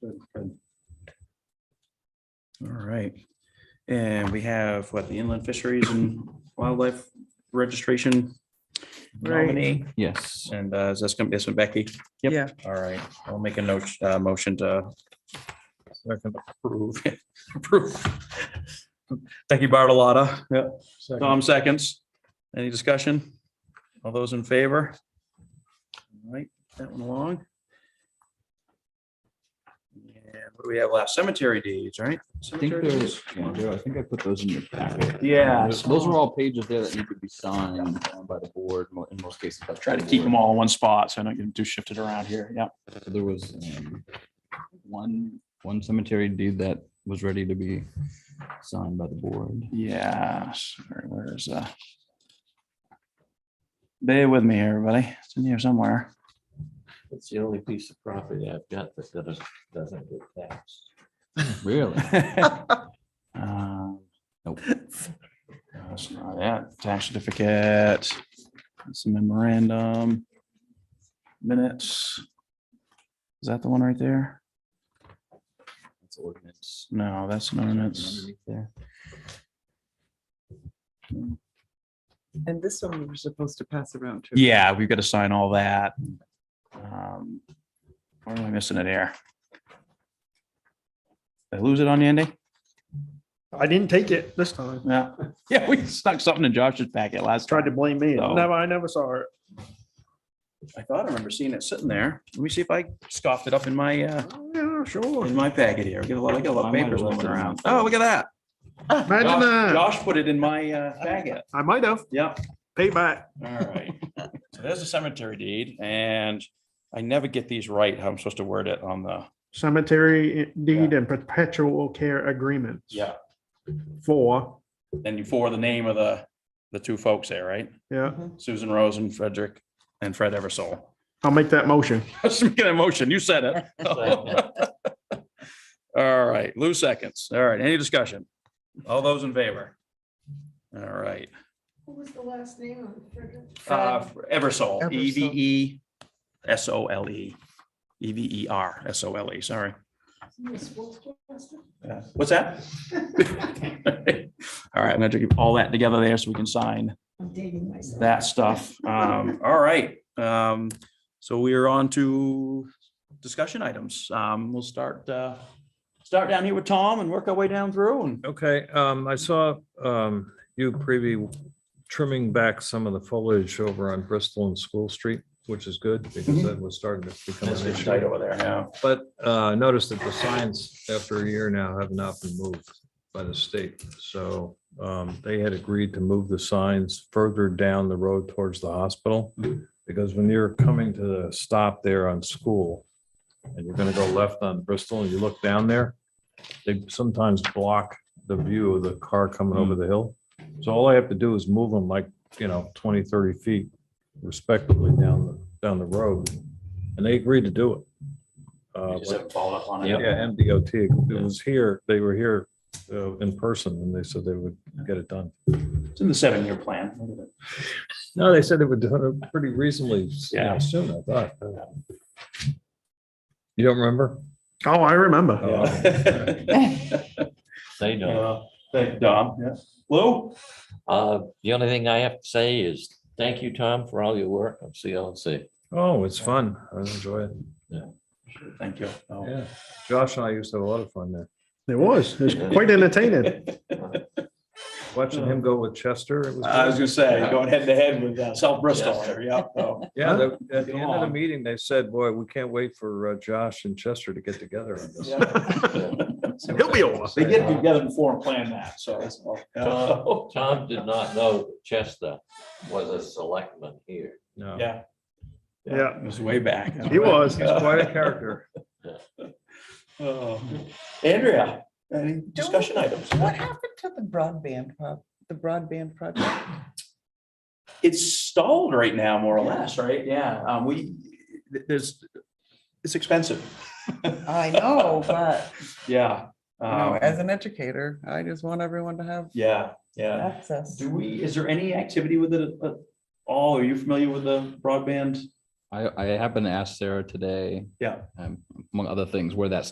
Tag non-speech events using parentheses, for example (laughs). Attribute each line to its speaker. Speaker 1: Good, good.
Speaker 2: All right. And we have what the inland fisheries and wildlife registration
Speaker 3: Right.
Speaker 2: nominee.
Speaker 4: Yes.
Speaker 2: And uh, is this going to be this one, Becky?
Speaker 4: Yep.
Speaker 3: Yeah,
Speaker 2: All right, I'll make a note, uh, motion to second approve, (laughs) approve. Becky Bartolotta. Yep.
Speaker 1: Second.
Speaker 2: Tom seconds. Any discussion? All those in favor? All right, that one along. And what do we have last? Cemetery deeds, right?
Speaker 4: I think
Speaker 2: Cemetery
Speaker 4: there's,
Speaker 2: deeds.
Speaker 4: yeah, there- I think I put those in your packet.
Speaker 2: Yeah.
Speaker 4: Those those are all pages there that need to be signed um, by the board mo- in most cases.
Speaker 5: Try to keep them all in one spot, so I don't get them too shifted around here. Yeah.
Speaker 4: So There was um, one, one cemetery deed that was ready to be signed by the board.
Speaker 5: Yeah. Sorry, Where's, uh? Bear with me here, everybody. It's in here somewhere.
Speaker 6: It's the only piece of property I've got that doesn't, doesn't get taxed.
Speaker 4: Really?
Speaker 5: Um,
Speaker 4: Nope.
Speaker 5: That's not it. Tax certificate, some memorandum, minutes. Is that the one right there?
Speaker 4: That's ordinance.
Speaker 5: No, that's an ordinance.
Speaker 4: Underneath there.
Speaker 3: and this one we were supposed to pass around too.
Speaker 5: Yeah, we've got to sign all that. Um, Where am I missing it here? Did I lose it on you, Andy?
Speaker 1: I didn't take it this time.
Speaker 5: Yeah, (laughs) yeah, we stuck something in Josh's packet last
Speaker 1: Tried
Speaker 5: time.
Speaker 1: to blame me.
Speaker 5: No.
Speaker 1: Never, I never saw it.
Speaker 2: I thought I remember seeing it sitting there. Let me see if I scoffed it up in my, uh,
Speaker 1: Yeah, sure.
Speaker 2: in my packet here. We got a lot, I got a lot of
Speaker 4: I might have
Speaker 2: papers
Speaker 4: left
Speaker 2: moving
Speaker 4: it in
Speaker 2: around.
Speaker 4: my
Speaker 2: Oh, look at that.
Speaker 1: Imagine
Speaker 2: Josh
Speaker 1: that.
Speaker 2: Josh put it in my uh, (laughs) packet.
Speaker 1: I might have
Speaker 2: Yep.
Speaker 1: paid back.
Speaker 2: All right, so there's a cemetery deed, and I never get these right, how I'm supposed to word it on the.
Speaker 1: Cemetery deed and perpetual care agreements. For,
Speaker 2: And you for the name of the, the two folks there, right?
Speaker 1: yeah,
Speaker 2: Susan Rose and Frederick and Fred Eversole. (laughs)
Speaker 1: I'll make that motion.
Speaker 2: Let's make an motion, you said (laughs) it. All right, Lou seconds, all right, any discussion? All those in favor? All right,
Speaker 7: What was the last name of it?
Speaker 2: uh, Eversole,
Speaker 3: Eversole.
Speaker 2: E V E S O L E, E V E R S O L E, sorry.
Speaker 7: Miss Wolfcaster?
Speaker 2: Yeah. What's that? (laughs)
Speaker 5: All right, I'm gonna keep all that together there so we can sign
Speaker 7: I'm dating myself.
Speaker 5: that stuff.
Speaker 2: Um, all right, um, so we are on to discussion items. Um, we'll start, uh, start down here with Tom and work our way down through and.
Speaker 8: Okay, um, I saw, um, you preview trimming back some of the foliage over on Bristol and School Street, which is good because that was starting to become an issue.
Speaker 2: over there, yeah.
Speaker 8: But, uh, noticed that the signs after a year now have not been moved by the state. So, um, they had agreed to move the signs further down the road towards the hospital. Because when you're coming to the stop there on school and you're gonna go left on Bristol and you look down there, they sometimes block the view of the car coming over the hill. So all I have to do is move them like, you know, 20, 30 feet respectively down, the down the road. And they agreed to do it. Uh, but-
Speaker 2: followed up on
Speaker 4: it.
Speaker 8: Yeah, MDOT, it was here, they were here uh, in person and they said they would get it done.
Speaker 2: It's in the seven-year plan.
Speaker 8: No, they said they would do it pretty reasonably you know,
Speaker 2: Yeah.
Speaker 8: soon, I thought. You don't remember?
Speaker 1: Oh, I remember.
Speaker 6: (laughs) They know.
Speaker 2: Uh, Thank you, Dom, yeah. Lou?
Speaker 6: Uh, the only thing I have to say is thank you, Tom, for all your work on CLNC.
Speaker 8: Oh, it's fun. I enjoy it.
Speaker 2: Thank you. Oh.
Speaker 8: Yeah. Josh and I used to have a lot of fun there.
Speaker 1: It was, it was
Speaker 2: (laughs)
Speaker 1: quite entertaining. (laughs)
Speaker 8: Watching him go with Chester, it was.
Speaker 2: I was
Speaker 8: good.
Speaker 2: gonna say, going head to head with uh, South Bristol there, yeah. so.
Speaker 8: Yeah, they- at the end of the
Speaker 2: Along.
Speaker 8: meeting, they said, boy, we can't wait for uh, Josh and Chester to get together. on
Speaker 1: (laughs)
Speaker 8: this."
Speaker 1: He'll be over.
Speaker 2: They get together before and plan that, so. that's all. (laughs) uh,
Speaker 6: Tom Tom did not know that Chester was a selectman here.
Speaker 8: No.
Speaker 2: Yeah.
Speaker 1: Yeah.
Speaker 2: It was way back.
Speaker 1: (laughs) He was.
Speaker 8: He's quite a character.
Speaker 2: Oh. Andrea, any discussion items?
Speaker 3: What happened to the broadband, pro- the broadband project?
Speaker 2: It's stalled right now, more or less, right? Yeah, um, we, th- there's, it's expensive.
Speaker 3: I know, but
Speaker 2: Yeah.
Speaker 3: you know,
Speaker 2: um,
Speaker 3: as an educator, I just want everyone to have
Speaker 2: Yeah, yeah.
Speaker 3: access.
Speaker 2: Do we, is there any activity with it at all? Are you familiar with the broadband?
Speaker 4: I, I happened to ask Sarah today.
Speaker 2: Yeah.
Speaker 4: um, Among other things, where that